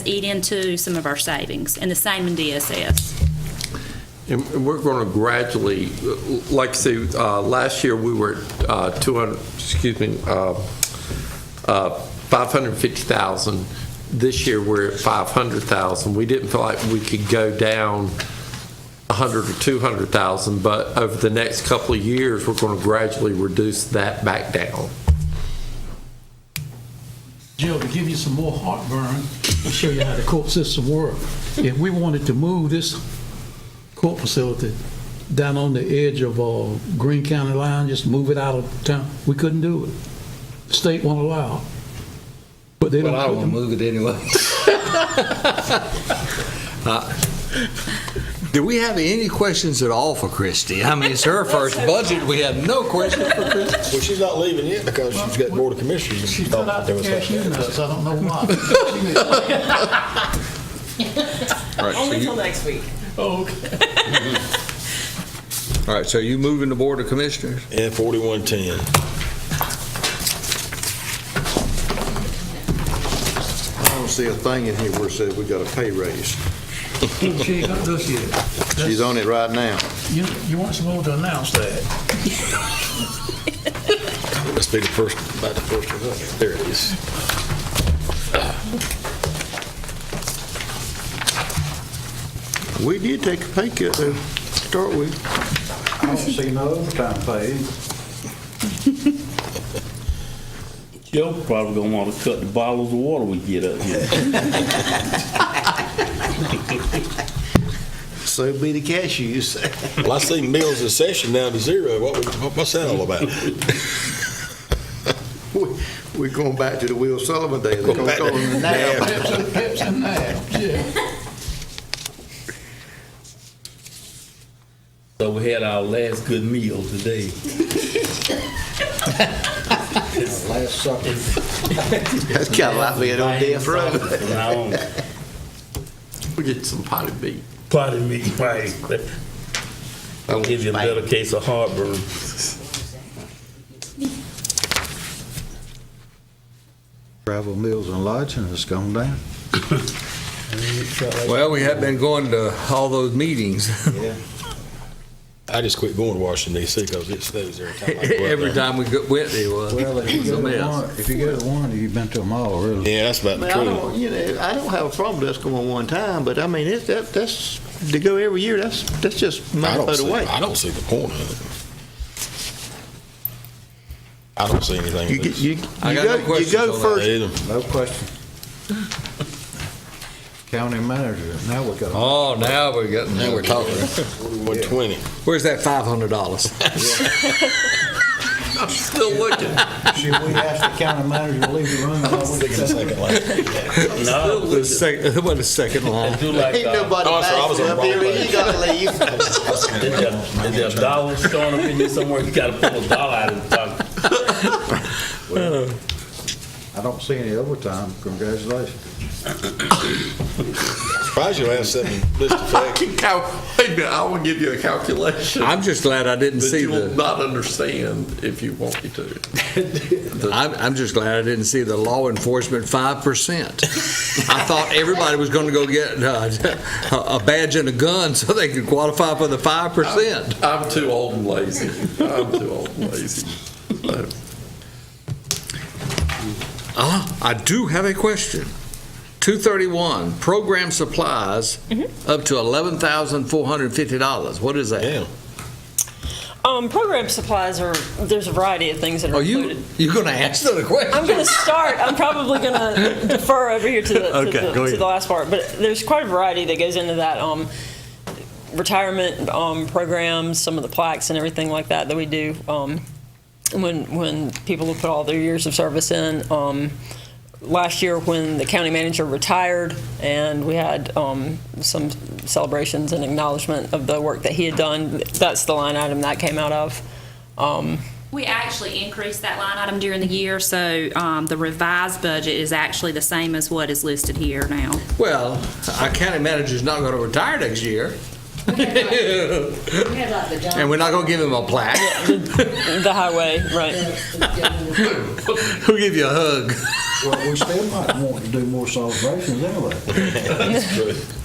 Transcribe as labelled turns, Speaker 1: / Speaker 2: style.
Speaker 1: eat into some of our savings, and the same in DSS.
Speaker 2: And we're going to gradually, like I say, uh, last year, we were at uh, 200, excuse me, uh, uh, 550,000. This year, we're at 500,000. We didn't feel like we could go down 100 or 200,000, but over the next couple of years, we're going to gradually reduce that back down.
Speaker 3: Jill, to give you some more heartburn, I'll show you how the court system works. If we wanted to move this court facility down on the edge of uh, Greene County line, just move it out of town, we couldn't do it. The State won't allow. it. But they
Speaker 4: Well, I don't want to
Speaker 3: don't,
Speaker 4: move it anyway. Uh, Do we have any questions at all for Christie? I mean, it's her first budget. We have no questions for Christie.
Speaker 5: Well, she's not leaving yet because she's got Board of Commissioners.
Speaker 3: she filled out the cashew nuts, I don't know why.
Speaker 6: Only till next week.
Speaker 4: All right, so you moving the Board of Commissioners?
Speaker 5: And 4110. I don't see a thing in here where it says we got a pay raise.
Speaker 3: She ain't got this yet.
Speaker 5: She's on it right now.
Speaker 3: You, you weren't supposed to announce that.
Speaker 5: Must be the first, about the first one up. There it is. We did take a pay cut to start with.
Speaker 7: I don't see no overtime pay.
Speaker 8: Joe probably gonna wanna cut the bottles of water we get up here.
Speaker 7: So be the cashews.
Speaker 5: Well, I see meals in session down to zero. What, we- what- what's that all about?
Speaker 7: We're going back to the Will Sullivan days.
Speaker 5: Going back to-
Speaker 3: Pips and that, yeah.
Speaker 8: So we had our last good meal today.
Speaker 7: Last supper. That's kind of like being on death row.
Speaker 8: From now on.
Speaker 2: We get some potted meat.
Speaker 8: Pardon me, right. I'll give you a better case of heartburn.
Speaker 7: Travel meals and lodging has gone down.
Speaker 4: Well, we have been going to all those meetings.
Speaker 7: Yeah.
Speaker 5: I just quit going to Washington DC because it snows every time. I go up
Speaker 4: Every
Speaker 5: there.
Speaker 4: time we go- went, there was
Speaker 7: Well, if you
Speaker 4: was a
Speaker 7: go to
Speaker 4: mess.
Speaker 7: one, if you go to one, you've been to them all, really.
Speaker 5: Yeah, that's about the
Speaker 9: Well, I
Speaker 5: truth.
Speaker 9: don't, you know, I don't have a problem with us going one time, but I mean, it's, that, that's, to go every year, that's, that's just
Speaker 5: I
Speaker 9: my
Speaker 5: don't
Speaker 9: foot
Speaker 5: see,
Speaker 9: away.
Speaker 5: I don't see the point of it. I don't see anything.
Speaker 9: You, get- you, you
Speaker 4: I got no
Speaker 9: go, you
Speaker 4: questions on
Speaker 9: go
Speaker 4: that.
Speaker 9: first,
Speaker 5: Either.
Speaker 7: No question. County manager, now we got.
Speaker 4: Oh, now we're getting.
Speaker 5: Now we're talking. One twenty.
Speaker 4: Where's that $500?
Speaker 2: I'm still looking.
Speaker 7: Should we ask the county manager to leave the room?
Speaker 8: No,
Speaker 4: It was sec- it wasn't a second line.
Speaker 8: they do like,
Speaker 9: ain't
Speaker 8: uh,
Speaker 9: nobody
Speaker 5: Oh, I'm sorry, I was
Speaker 9: backing
Speaker 5: on
Speaker 9: up
Speaker 5: the wrong
Speaker 9: here,
Speaker 5: button.
Speaker 9: you gotta leave.
Speaker 8: they got, they got dollars showing up in there somewhere, you gotta pull a dollar out of his pocket.
Speaker 7: I don't see any overtime. Congratulations.
Speaker 5: Surprised you asked something. List of
Speaker 2: I
Speaker 5: facts.
Speaker 2: can cal- wait a minute, I will give you a calculation.
Speaker 4: I'm just glad I didn't
Speaker 2: that
Speaker 4: see
Speaker 2: you will
Speaker 4: the,
Speaker 2: not understand if you want me to.
Speaker 4: I'm, I'm just glad I didn't see the law enforcement 5%. I thought everybody was going to go get uh, a a badge and a gun so they could qualify for the 5%.
Speaker 2: I'm too old and lazy. I'm too old and lazy. So,
Speaker 6: Uh-huh.
Speaker 4: Ah, I do have a question. 231, program supplies
Speaker 6: Mm-hmm.
Speaker 4: up to $11,450. What is that?
Speaker 5: Damn.
Speaker 6: Um, program supplies are, there's a variety of things that are
Speaker 4: Are you,
Speaker 6: included.
Speaker 4: you're going to answer the question?
Speaker 6: I'm gonna start, I'm probably gonna defer over here to the, to
Speaker 4: Okay,
Speaker 6: the-
Speaker 4: go
Speaker 6: to
Speaker 4: ahead.
Speaker 6: the last part, but there's quite a variety that goes into that. Um, retirement, um, programs, some of the plaques and everything like that that we do, um, when, when people have put all their years of service in. Um, last year when the county manager retired and we had um, some celebrations and acknowledgement of the work that he had done, that's the line item that came out of. Um,
Speaker 1: We actually increased that line item during the year, so um, the revised budget is actually the same as what is listed here now.
Speaker 4: Well, our county manager's not going to retire next year. And we're not going to give him a plaque.
Speaker 6: the highway, right.
Speaker 4: We'll give you a hug.
Speaker 8: Well, we still might want to do more celebrations anyway.
Speaker 10: That's true.